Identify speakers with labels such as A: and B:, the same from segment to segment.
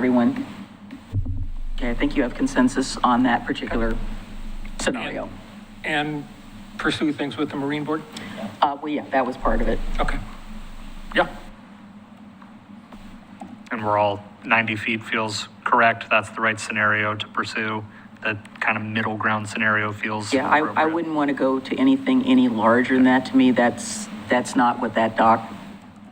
A: everyone. Okay, I think you have consensus on that particular scenario.
B: and pursue things with the Marine Board?
A: Uh, well, yeah, that was part of it.
B: Okay. Yeah,
C: and we're all 90 feet feels correct, that's the right scenario to pursue. That kind of middle ground scenario feels
A: Yeah, I, I
C: appropriate.
A: wouldn't want to go to anything any larger than that. To me, that's, that's not what that dock,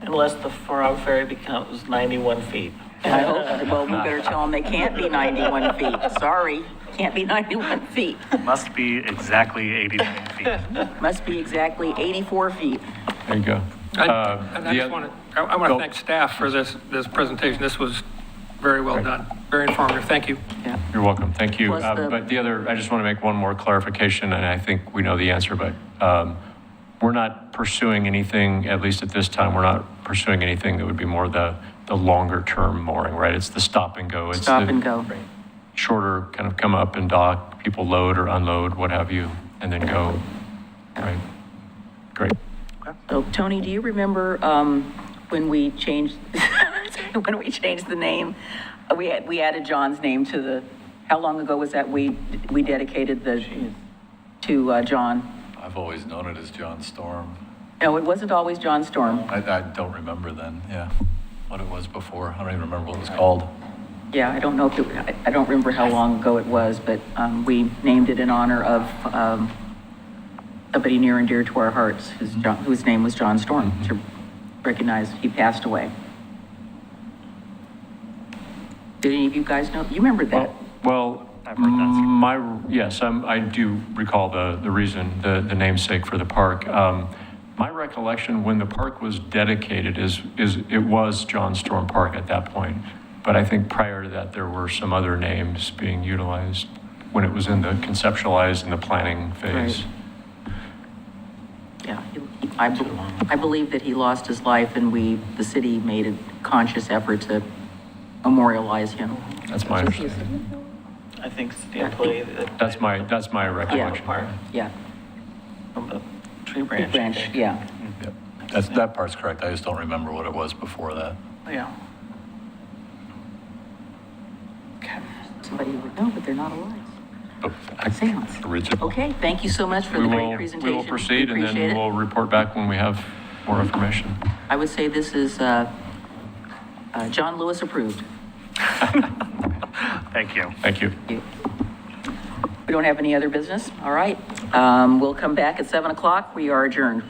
D: Unless the four-hour ferry becomes 91 feet.
A: I hope, well, we better tell them they can't be 91 feet. Sorry, can't be 91 feet.
C: Must be exactly 89 feet.
A: Must be exactly 84 feet.
E: There you go.
B: I-
E: Uh,
B: and
E: the
B: I just
E: oth-
B: want to, I want to
E: Go.
B: thank staff for this, this presentation. This was very well done, very informative. Thank you.
A: Yeah.
E: You're welcome, thank you.
A: Plus
E: Uh,
A: the-
E: But the other, I just want to make one more clarification, and I think we know the answer, but um, we're not pursuing anything, at least at this time, we're not pursuing anything that would be more the, the longer-term mooring, right? It's the stop and go. It's
A: Stop
E: the
A: and go.
E: Shorter, kind of come up and dock, people load or unload, what have you, and then go, right? Great.
A: So Oh, Tony, do you remember um, when we changed, when we changed the name? Uh, We had, we added John's name to the, how long ago was that we, we dedicated the, to uh, John?
F: I've always known it as John Storm.
A: No, it wasn't always John Storm.
F: I, I don't remember then, yeah, what it was before. I don't even remember what it was called.
A: Yeah, I don't know if, it- I- I don't remember how long ago it was, but um, we named it in honor of um, somebody near and dear to our hearts, whose, John- whose name was John Storm,
E: Mm-hmm.
A: to recognize he passed away. Did any of you guys know, you remember that?
E: Well, mm,
C: I've heard that.
E: my, yes, I'm- I do recall the, the reason, the the namesake for the park. Um, My recollection, when the park was dedicated, is, is, it was John Storm Park at that point. But I think prior to that, there were some other names being utilized when it was in the conceptualized and the planning phase.
A: Right. Yeah, he- I, be- I believe that he lost his life and we, the city made a conscious effort to memorialize him.
E: That's my understanding.
D: I think it's the employee that.
E: That's my, that's my recollection.
D: Apart
A: Yeah,
D: from the tree
A: Big
D: branch. I
A: branch,
D: think.
A: yeah.
F: Yep. That's, that part's correct. I just don't remember what it was before that.
D: Yeah.
A: Somebody would know, but they're not alive.
F: But I-
A: Seance.
F: Original.
A: Okay, thank you so much for
E: We
A: the great
E: will,
A: presentation.
E: we will proceed and
A: Appreciate it.
E: then we'll report back when we have more information.
A: I would say this is uh, uh, John Lewis approved.
C: Thank you.
E: Thank you.
A: We don't have any other business? All right. Um, We'll come back at 7 o'clock. We are adjourned.